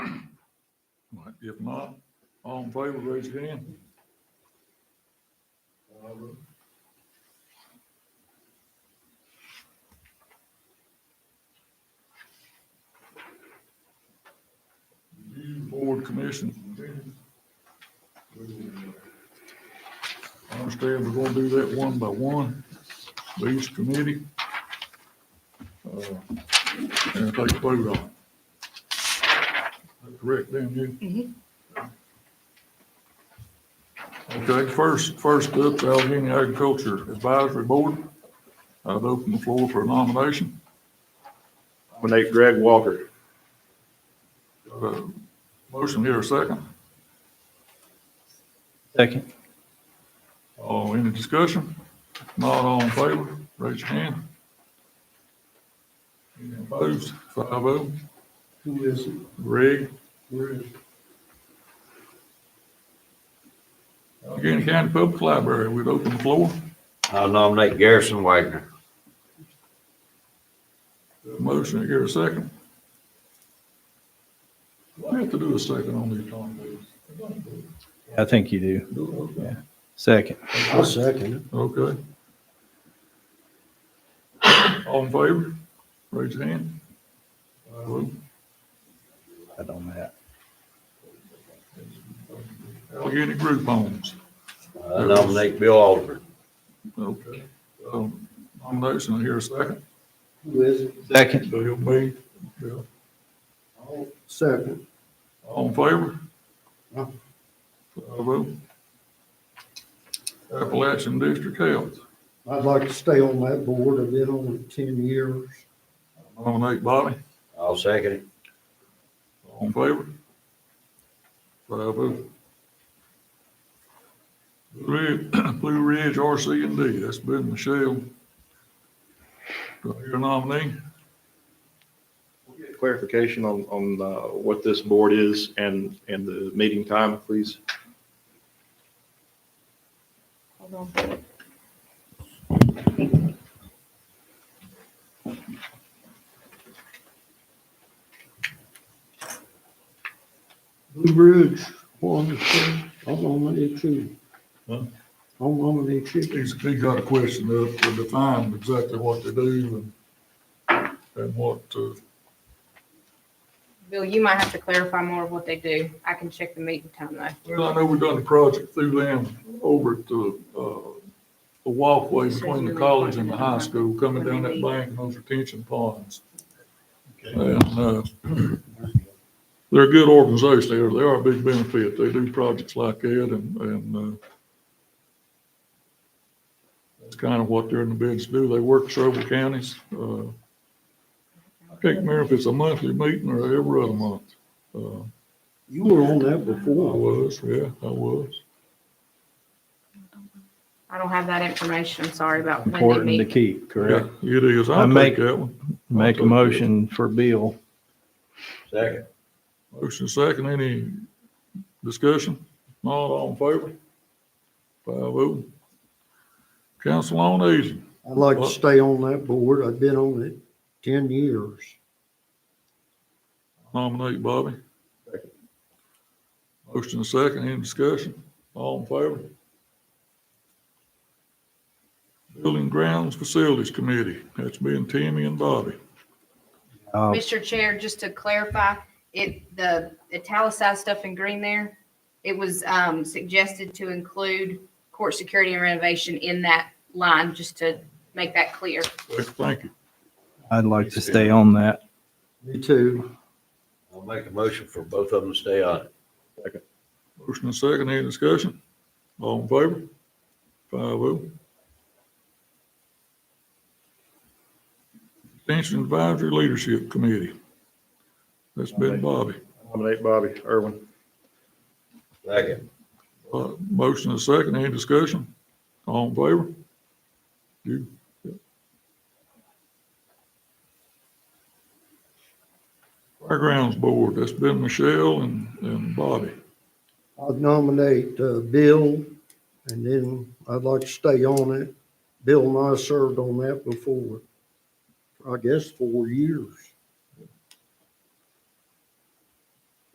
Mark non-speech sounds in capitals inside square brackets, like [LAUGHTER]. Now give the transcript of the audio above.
If not, all in favor, raise your hand. Board commission. I understand we're gonna do that one by one, by each committee. Uh, And take a vote on it. Correct, damn you? Okay, first, first up, the Allegheny Agriculture Advisory Board. I'd open the floor for a nomination. Nominate Greg Walker. Uh, Motion here, a second. Second. Oh, any discussion? Not all in favor, raise your hand. Any opposed? Five oh. Who is it? Greg, Where is it? Allegheny County Public Library, we'd open the floor. I'll nominate Garrison Wagner. Motion here, a second. Do I have to do a second on these nominations? I think you do. Do it, okay. Second. I'll second it. Okay. All in favor, raise your hand. I don't know. Allegheny Group Homes. I nominate Bill Alderman. Okay. Um, Nomination here, a second. Who is it? Second. Bill B. Bill. I'll second. All in favor? Aye. Five oh. Appalachian District Health. I'd like to stay on that board. I've been on it ten years. Nominate Bobby. I'll second it. All in favor? Five oh. Blue Ridge, [CLEARS THROAT] Blue Ridge RC and D, that's been Michelle. Do I hear a nominee? Clarification on, on uh, what this board is and, and the meeting time, please. Hold on. Blue Ridge, one, two, I'm on the two. Huh? I'm on the two. He's, he got a question up to define exactly what they do and, and what, uh, Bill, you might have to clarify more of what they do. I can check the meeting time though. well, I know we've done a project through them over to, uh, the walkway between the college and the high school, coming down that bank and those retention ponds. And, uh, [CLEARS THROAT] they're a good organization. They are, they are a big benefit. They do projects like that and, and, uh, that's kind of what they're in the business to do. They work several counties. Uh, I can't remember if it's a monthly meeting or every other month. Uh, You were on that I before. was, yeah, I was. I don't have that information. I'm Sorry about when they Important to meet. keep, correct? Yeah, It is. I I'll make- take that one. Make a motion for Bill. Second. Motion second. Any discussion? Not all in favor? Five oh. Council on Aging. I'd like to Well- stay on that board. I've been on it ten years. Nominate Bobby. Motion second, any discussion? All in favor? Building Grounds Facilities Committee, that's me and Timmy and Bobby. Uh, Mr. Chair, just to clarify, it, the italicized stuff in green there, it was, um, suggested to include court security and renovation in that line, just to make that clear. Thank you. I'd like to stay on that. Me too. I'll make a motion for both of them to stay on it. Motion second, any discussion? All in favor? Five oh. Extension Advisory Leadership Committee. That's been Bobby. Nominate Bobby Irwin. Second. Uh, motion is second, any discussion? All in favor? You, yeah. Fairgrounds Board, that's been Michelle and, and Bobby. I'd nominate, uh, Bill, and then I'd like to stay on it. Bill and I served on that before, I guess, four years.